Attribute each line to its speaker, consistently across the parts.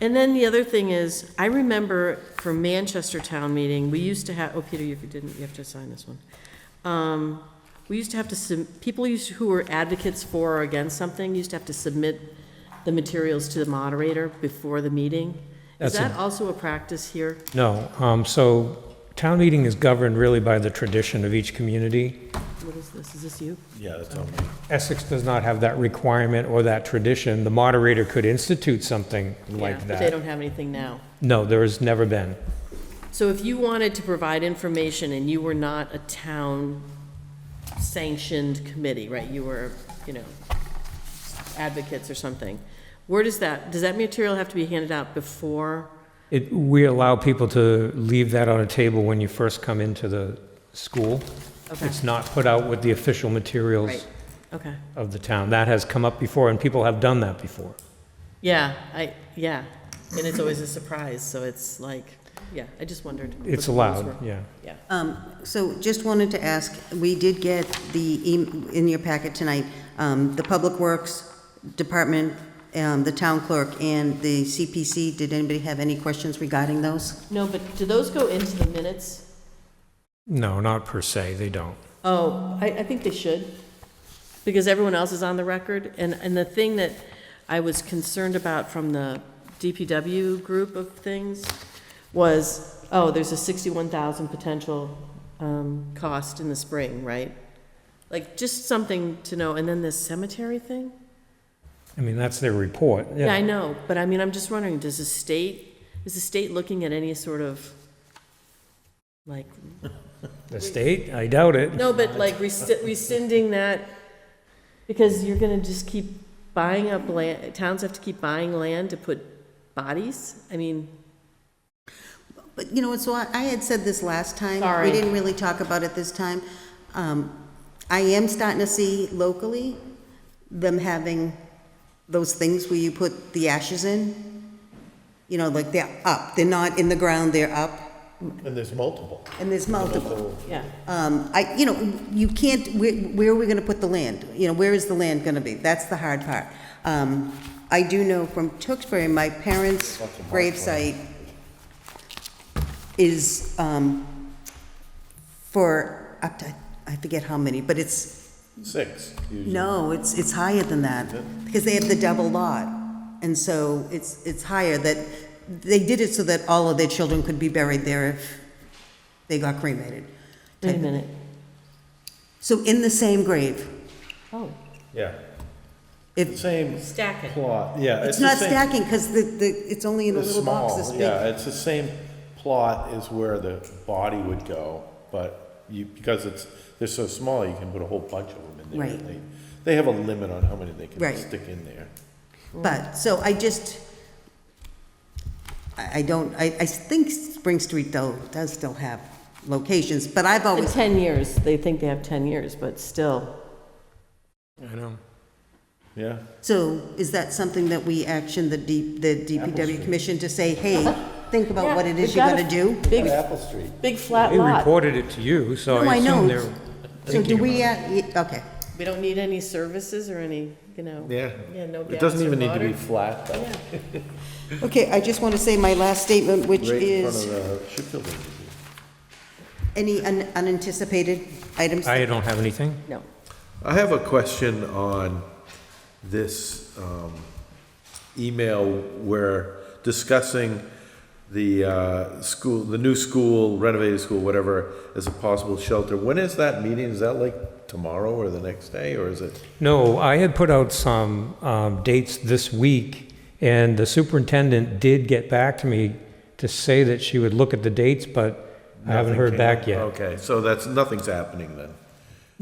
Speaker 1: And then the other thing is, I remember for Manchester Town Meeting, we used to have, oh, Peter, if you didn't, you have to sign this one. Um, We used to have to, sub- people used, who were advocates for or against something, used to have to submit the materials to the moderator before the meeting. Is
Speaker 2: That's a-
Speaker 1: that also a practice here?
Speaker 2: No, um, so town meeting is governed really by the tradition of each community.
Speaker 1: What is this? Is this you?
Speaker 3: Yeah, that's all.
Speaker 2: Essex does not have that requirement or that tradition. The moderator could institute something
Speaker 1: Yeah,
Speaker 2: like
Speaker 1: But they
Speaker 2: that.
Speaker 1: don't have anything now.
Speaker 2: No, there has never been.
Speaker 1: So if you wanted to provide information and you were not a town sanctioned committee, right, you were, you know, advocates or something, where does that, does that material have to be handed out before?
Speaker 2: It, we allow people to leave that on a table when you first come into the school.
Speaker 1: Okay.
Speaker 2: It's not put out with the official materials
Speaker 1: Right, okay,
Speaker 2: of the town. That has come up before, and people have done that before.
Speaker 1: yeah, I, yeah, and it's always a surprise, so it's like, yeah, I just wondered. what
Speaker 2: It's
Speaker 1: the rules
Speaker 2: allowed,
Speaker 1: were.
Speaker 2: yeah.
Speaker 1: Yeah,
Speaker 4: Um, So just wanted to ask, we did get the, em- in your packet tonight, um, the Public Works Department, um, the town clerk, and the CPC. Did anybody have any questions regarding those?
Speaker 1: no, but do those go into the minutes?
Speaker 2: No, not per se, they don't.
Speaker 1: Oh, I, I think they should, because everyone else is on the record. And, and the thing that I was concerned about from the DPW group of things was, oh, there's a sixty-one thousand potential, um, cost in the spring, right? Like, just something to know. And then this cemetery thing?
Speaker 2: I mean, that's their report.
Speaker 1: Yeah, I know, but I mean, I'm just wondering, does the state, is the state looking at any sort of, like,
Speaker 2: The state, I doubt it.
Speaker 1: No, but like resci- rescinding that, because you're gonna just keep buying up land, towns have to keep buying land to put bodies? I mean,
Speaker 4: But, you know, so I I had said this last time.
Speaker 1: Sorry.
Speaker 4: We didn't really talk about it this time. Um, I am starting to see locally them having those things where you put the ashes in. You know, like they're up, they're not in the ground, they're up,
Speaker 3: And there's multiple.
Speaker 4: and there's multiple.
Speaker 1: yeah,
Speaker 4: Um, I, you know, you can't, where, where are we gonna put the land? You know, where is the land gonna be? That's the hard part. Um, I do know from Tewksbury, my parents' gravesite is, um, for up to, I forget how many, but it's,
Speaker 3: Six, usually.
Speaker 4: no, it's, it's higher than that, because they have the double lot. And so it's, it's higher that, they did it so that all of their children could be buried there if they got cremated.
Speaker 1: wait a minute.
Speaker 4: So in the same grave.
Speaker 1: Oh,
Speaker 3: Yeah.
Speaker 4: If,
Speaker 3: Same
Speaker 1: stack it.
Speaker 3: plot, yeah.
Speaker 4: it's
Speaker 3: the
Speaker 4: not
Speaker 3: same-
Speaker 4: stacking, because the, the, it's only in a
Speaker 3: It's
Speaker 4: little box this
Speaker 3: small, yeah.
Speaker 4: big.
Speaker 3: It's the same plot as where the body would go, but you, because it's, they're so small, you can put a whole bunch of them in there.
Speaker 4: Right.
Speaker 3: and they- They have a limit on how many they can
Speaker 4: Right.
Speaker 3: stick in there.
Speaker 4: But, so I just, I, I don't, I, I think Spring Street though does still have locations, but I've
Speaker 1: In
Speaker 4: always,
Speaker 1: ten years, they think they have ten years, but still,
Speaker 2: I know.
Speaker 3: Yeah,
Speaker 4: so is that something that we action the D, the DPW commission to say, hey, think about what it
Speaker 1: Yeah,
Speaker 4: is
Speaker 1: we've
Speaker 4: you're
Speaker 1: got a
Speaker 4: gonna do?
Speaker 1: big,
Speaker 3: Apple Street.
Speaker 1: big flat
Speaker 2: They
Speaker 1: lot.
Speaker 2: reported it to you, so
Speaker 4: No,
Speaker 2: I
Speaker 4: I
Speaker 2: assume
Speaker 4: know.
Speaker 2: they're
Speaker 4: So do
Speaker 2: thinking
Speaker 4: we,
Speaker 2: about
Speaker 4: uh, y- okay,
Speaker 1: We don't need any services or any, you know. Yeah, no
Speaker 3: It doesn't
Speaker 1: gas or
Speaker 3: even need to be
Speaker 1: water.
Speaker 3: flat, though.
Speaker 4: okay, I just wanna say my last statement, which
Speaker 3: Right in front
Speaker 4: is,
Speaker 3: of the ship building.
Speaker 4: any un- unanticipated items?
Speaker 2: it. I don't have anything.
Speaker 1: No,
Speaker 3: I have a question on this um, email where discussing the uh, school, the new school, renovated school, whatever, as a possible shelter. When is that meeting? Is that like tomorrow or the next day, or is it?
Speaker 2: No, I had put out some um, dates this week, and the superintendent did get back to me to say that she would look at the dates, but I haven't heard back yet.
Speaker 3: Okay, so that's, nothing's happening then.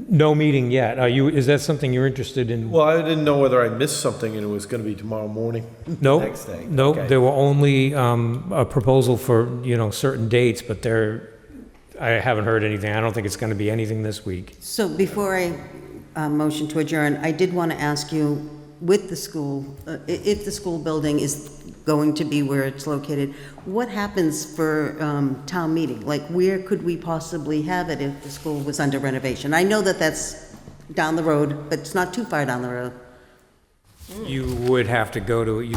Speaker 2: No meeting yet. Are you, is that something you're interested in?
Speaker 3: Well, I didn't know whether I missed something and it was gonna be tomorrow morning.
Speaker 2: No,
Speaker 3: Next day,
Speaker 2: no,
Speaker 3: okay.
Speaker 2: there were only um, a proposal for, you know, certain dates, but there, I haven't heard anything. I don't think it's going to be anything this week.
Speaker 4: So before I uh, motion to adjourn, I did want to ask you, with the school, uh, i- if the school building is going to be where it's located, what happens for um, town meeting? Like, where could we possibly have it if the school was under renovation? I know that that's down the road, but it's not too far down the road.
Speaker 2: You would have to go to, you